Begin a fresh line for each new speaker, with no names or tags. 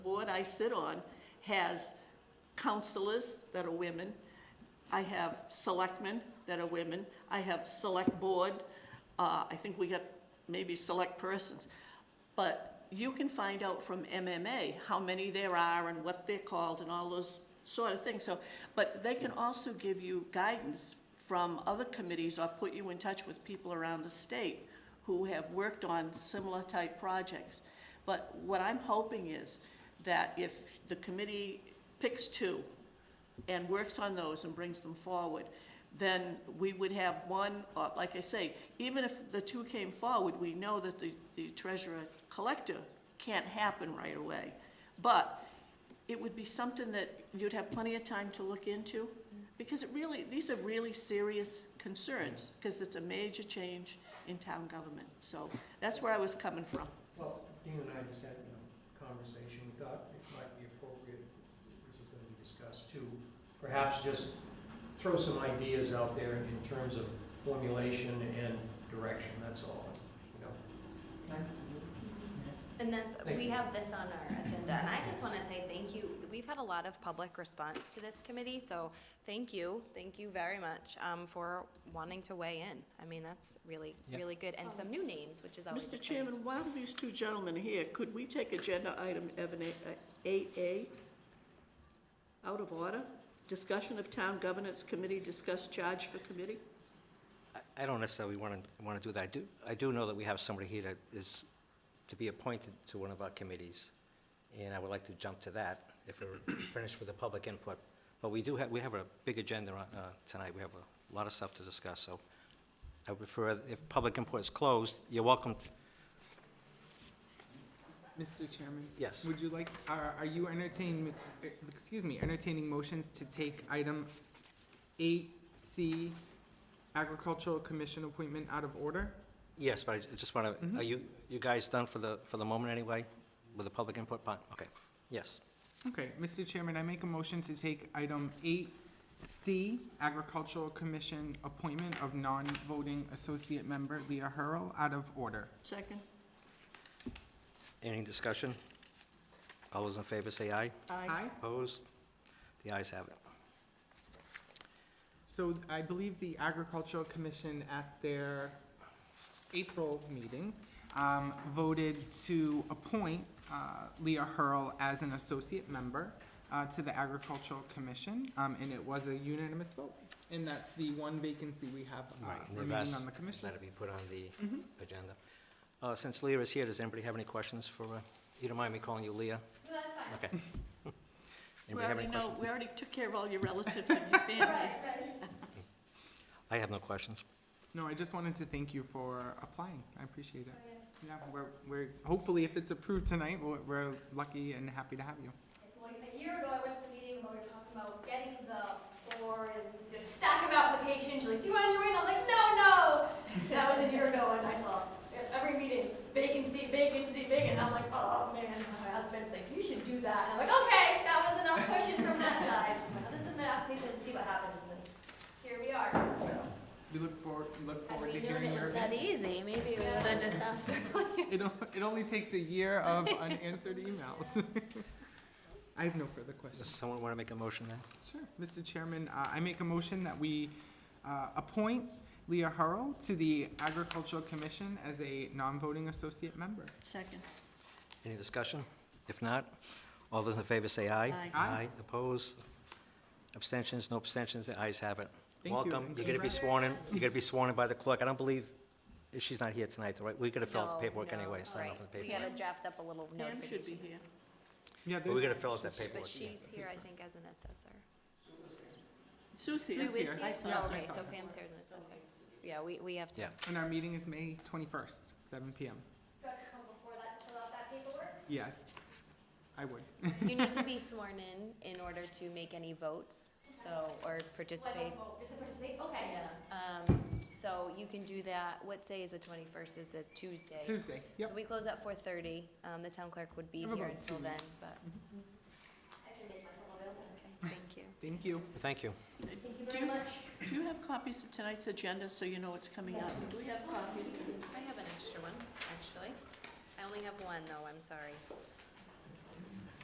I sit on has councilors that are women. I have selectmen that are women. I have select board. Uh, I think we got maybe select persons. But you can find out from MMA how many there are and what they're called and all those sort of things. So, but they can also give you guidance from other committees or put you in touch with people around the state who have worked on similar type projects. But what I'm hoping is that if the committee picks two and works on those and brings them forward, then we would have one, uh, like I say, even if the two came forward, we know that the, the treasurer collector can't happen right away. But it would be something that you'd have plenty of time to look into, because it really, these are really serious concerns, because it's a major change in town government. So that's where I was coming from.
Well, Dean and I just had a conversation, we thought it might be appropriate, this is gonna be discussed, to perhaps just throw some ideas out there in terms of formulation and direction, that's all, you know.
And that's,
Thank
we
you.
have this on our agenda, and I just want to say thank you. We've had a lot of public response to this committee, so thank you, thank you very much um, for wanting to weigh in. I mean, that's really,
Yeah.
really good, and some new names, which is always
Mr.
exciting.
Chairman, while these two gentlemen are here, could we take agenda item Evan- uh, 8A out of order? Discussion of town governance committee, discuss charge for committee?
I- I don't necessarily want to, want to do that. I do, I do know that we have somebody here that is to be appointed to one of our committees, and I would like to jump to that if we're finished with the public input. But we do have, we have a big agenda on, uh, tonight. We have a lot of stuff to discuss, so I prefer, if public input is closed, you're welcome, to-
Mr. Chairman?
Yes.
Would you like, are, are you entertaining, excuse me, entertaining motions to take item eight C, agricultural commission appointment out of order?
yes, but I ju- just want to, are you, you guys done for the, for the moment anyway, with the public input part? Okay, yes.
Okay, Mr. Chairman, I make a motion to take item eight C, agricultural commission appointment of non-voting associate member Leah Hurl out of order.
Second?
Any discussion? All those in favor say aye.
Aye?
Opposed? The ayes have it.
So I believe the Agricultural Commission at their April meeting um, voted to appoint uh, Leah Hurl as an associate member uh, to the Agricultural Commission, um, and it was a unanimous vote. And that's the one vacancy we have uh,
Right, and they've
remaining on
asked
the commission. Mm-hmm.
That it be put on the agenda. Uh, Since Leah is here, does anybody have any questions for, uh, you don't mind me calling you Leah?
No, that's fine.
Okay.
We
Anybody have
already
any
know,
questions?
we already took care of all your relatives and your family.
I have no questions.
No, I just wanted to thank you for applying. I appreciate it. Yeah, we're, we're, hopefully if it's approved tonight, we're, we're lucky and happy to have you.
So like a year ago, I went to the meeting where we were talking about getting the forms, you know, stack of applications, you're like, do you want to join? I'm like, no, no. That was a year ago, and I saw every meeting, vacancy, vacancy, vacancy, and I'm like, oh man, my husband's like, you should do that. And I'm like, okay, that was enough pushing from that side. So I'm like, this is my application, see what happens, and here we are, so.
We look forward, look
Had
forward to
we known
hearing
it
your
was
opinion.
that easy, maybe we would have just asked earlier.
It, o- it only takes a year of unanswered emails. I have no further
Does
questions.
someone want to make a motion then?
Sure. Mr. Chairman, uh, I make a motion that we uh, appoint Leah Hurl to the Agricultural Commission as a non-voting associate member.
Second.
Any discussion? If not, all those in favor say aye.
Aye.
Aye.
opposed? Abstentions, no abstentions, the ayes have it.
Thank you,
Welcome,
and
you're going to be
congrats.
sworn in, you're going to be sworn in by the clerk. I don't believe, if she's not here tonight, right, we could have filled out
No,
the paperwork
no,
anyway, sign off
right.
on the
We
paperwork.
gotta draft up a little
Pam should be
notification.
here.
Yeah,
But we
there's-
gotta fill out that
But
paperwork.
she's here, I think, as an assessor.
Susie
Sue
is
is here?
here. I saw
Oh,
her.
Okay,
I saw
so
her.
Pam's here as an assessor. Yeah, we, we have to.
Yeah.
And our meeting is May twenty-first, seven PM.
Got to come before that to fill out that paperwork?
Yes, I would.
You need to be sworn in in order to make any votes, so, or
Well, I
participate.
don't vote, but to participate, okay.
Um, so you can do that, what day is the twenty-first, is a Tuesday? So
Tuesday, yep.
we close at four thirty, um, the town clerk would be
Have
here
about
until
two
then, but,
I can make myself available.
okay, thank you.
Thank you.
Thank you.
Thank you
Do
very
you-
much.
Do you have copies of tonight's agenda, so you know what's coming up? Do we have copies?
I have an extra one, actually. I only have one, though, I'm sorry.